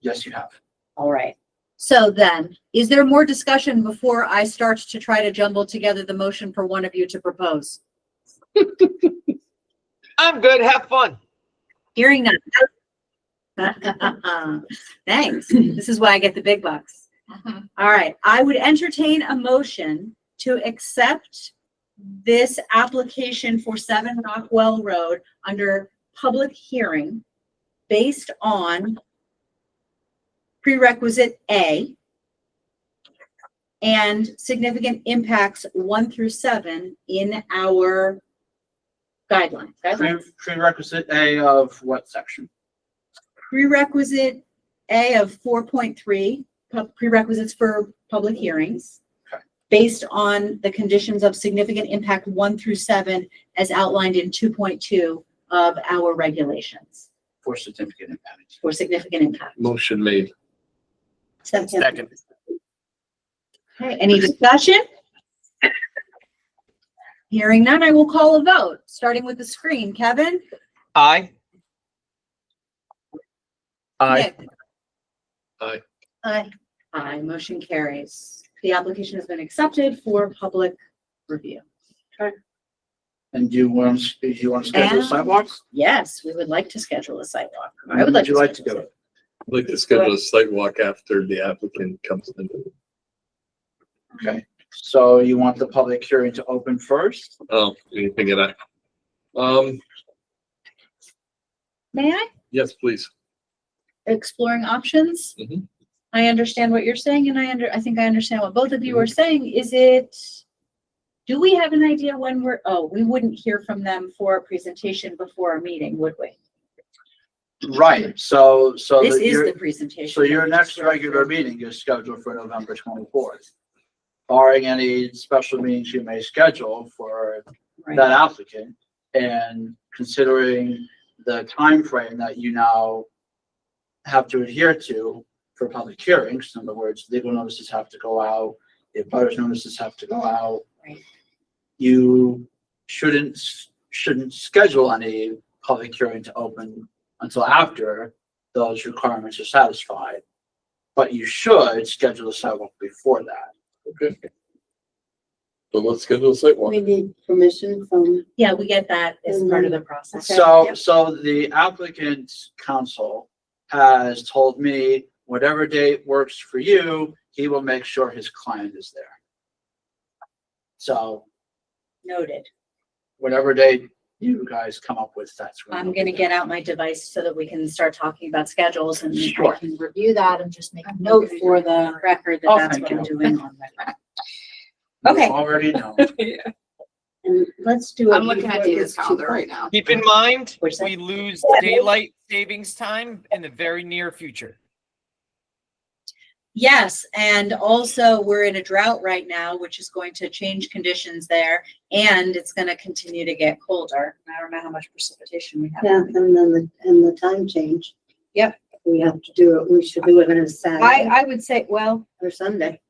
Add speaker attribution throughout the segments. Speaker 1: Yes, you have.
Speaker 2: All right. So then, is there more discussion before I start to try to jumble together the motion for one of you to propose?
Speaker 3: I'm good. Have fun.
Speaker 2: Hearing none. Thanks. This is why I get the big bucks. All right, I would entertain a motion to accept this application for Seven Rockwell Road under public hearing based on prerequisite A and significant impacts one through seven in our guidelines. guidelines?
Speaker 1: Pre- Prerequisite A of what section?
Speaker 2: prerequisite A of four point three, prerequisites for public hearings.
Speaker 1: Okay.
Speaker 2: Based on the conditions of significant impact one through seven as outlined in two point two of our regulations
Speaker 1: For certificate impact.
Speaker 2: for significant impact.
Speaker 4: Motion made.
Speaker 2: Second. Okay, any discussion? Hearing none, I will call a vote, starting with the screen. Kevin?
Speaker 3: Aye.
Speaker 2: Nick?
Speaker 4: Aye.
Speaker 2: Aye. Aye, motion carries. The application has been accepted for public review.
Speaker 1: And do you want, to do you want to schedule
Speaker 2: And-
Speaker 1: sidewalks?
Speaker 2: Yes, we would like to schedule a sidewalk. I
Speaker 1: When
Speaker 2: would like.
Speaker 1: you like to do
Speaker 2: schedule a
Speaker 1: it?
Speaker 4: I'd like to schedule a site walk after the applicant comes in.
Speaker 1: Okay, so you want the public hearing to open first?
Speaker 4: Oh, anything of that. Um,
Speaker 2: sidewalk. May I?
Speaker 4: yes, please.
Speaker 2: Exploring options?
Speaker 1: Mm-hmm.
Speaker 4: Mhm.
Speaker 2: I understand what you're saying and I under, I think I understand what both of you are saying. Is it? Do we have an idea when we're, oh, we wouldn't hear from them for a presentation before a meeting, would we?
Speaker 1: Right, so, so.
Speaker 2: This
Speaker 1: that
Speaker 2: is
Speaker 1: you're-
Speaker 2: the presentation.
Speaker 1: So your next regular meeting is scheduled for November twenty-fourth. Barring any special meetings you may schedule for
Speaker 2: Right.
Speaker 1: that applicant and considering the time frame that you now have to adhere to for public hearings, in other words, legal notices have to go out, if butters notices have to go out.
Speaker 2: Right.
Speaker 1: You shouldn't, shouldn't schedule any public hearing to open until after those requirements are satisfied. But you should schedule a sidewalk before that.
Speaker 4: Okay. So let's schedule a site walk.
Speaker 5: We need permission from,
Speaker 2: Yeah, we get that as part of the process.
Speaker 5: Okay,
Speaker 1: So,
Speaker 5: yeah.
Speaker 1: so the applicant's counsel has told me whatever date works for you, he will make sure his client is there. So
Speaker 2: Noted.
Speaker 1: whatever date you guys come up with, that's. when
Speaker 2: I'm
Speaker 1: we'll
Speaker 2: gonna
Speaker 1: do
Speaker 2: get out my device so that we can start talking about schedules and I
Speaker 1: Sure.
Speaker 2: can review that and just make
Speaker 5: a
Speaker 2: note for the record that
Speaker 1: Oh,
Speaker 2: that's
Speaker 1: thank
Speaker 2: what I'm
Speaker 1: you.
Speaker 2: doing on record.
Speaker 1: that.
Speaker 2: okay.
Speaker 1: You Already know.
Speaker 5: and let's do. it
Speaker 6: I'm looking at
Speaker 5: before it
Speaker 6: David's
Speaker 5: gets too
Speaker 6: calendar
Speaker 5: cold.
Speaker 6: right now.
Speaker 3: Keep in mind,
Speaker 2: Which
Speaker 3: we
Speaker 2: that-
Speaker 3: lose daylight savings time in the very near future.
Speaker 2: Yes, and also we're in a drought right now, which is going to change conditions there and it's gonna continue to get colder. I don't know how much precipitation we
Speaker 5: Yeah,
Speaker 2: have.
Speaker 5: and then the, and the time change.
Speaker 2: Yep.
Speaker 5: We have to do it, we should do it on a Saturday
Speaker 2: I would say, well,
Speaker 5: or Sunday.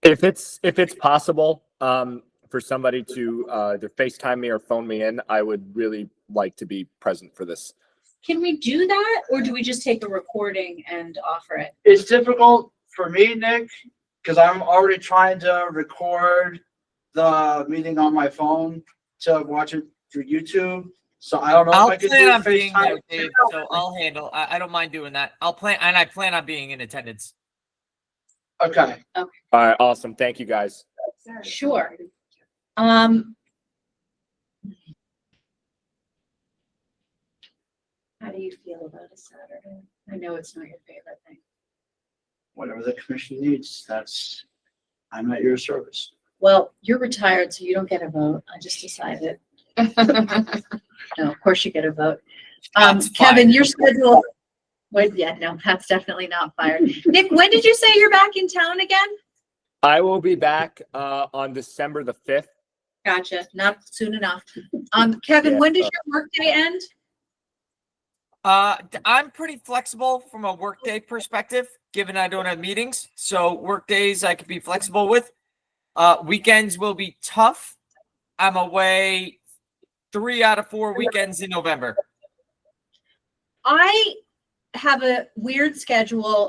Speaker 7: If it's, if it's possible, um, for somebody to, uh, either FaceTime me or phone me in, I would really like to be present for this.
Speaker 2: can we do that or do we just take a recording and offer it?
Speaker 1: It's difficult for me, Nick, because I'm already trying to record the meeting on my phone to watch it through YouTube. So I don't know if I
Speaker 3: I'll
Speaker 1: could
Speaker 3: plan on
Speaker 1: do
Speaker 3: being there,
Speaker 1: FaceTime.
Speaker 3: Dave, so I'll handle, I, I don't mind doing that. I'll plan, and I plan on being in attendance.
Speaker 1: Okay,
Speaker 7: All right, awesome. Thank you, guys.
Speaker 2: Sure. Um. How do you feel about a Saturday? I know it's not your favorite thing.
Speaker 1: whatever the commission needs, that's, I'm at your service.
Speaker 2: Well, you're retired, so you don't get a vote. I just decided. No, of course you get a vote. Um,
Speaker 3: That's
Speaker 2: Kevin, your schedule. Wait, yeah, no, that's definitely not fired. Nick, when did you say you're back in town again?
Speaker 7: I will be back, uh, on December the fifth.
Speaker 2: Gotcha, not soon enough. Um, Kevin, when does
Speaker 7: Yeah.
Speaker 2: your workday end?
Speaker 3: Uh, d- I'm pretty flexible from a workday perspective, given I don't have meetings, so workdays I could be flexible with. Uh, weekends will be tough. I'm away three out of four weekends in November.
Speaker 2: I have a weird schedule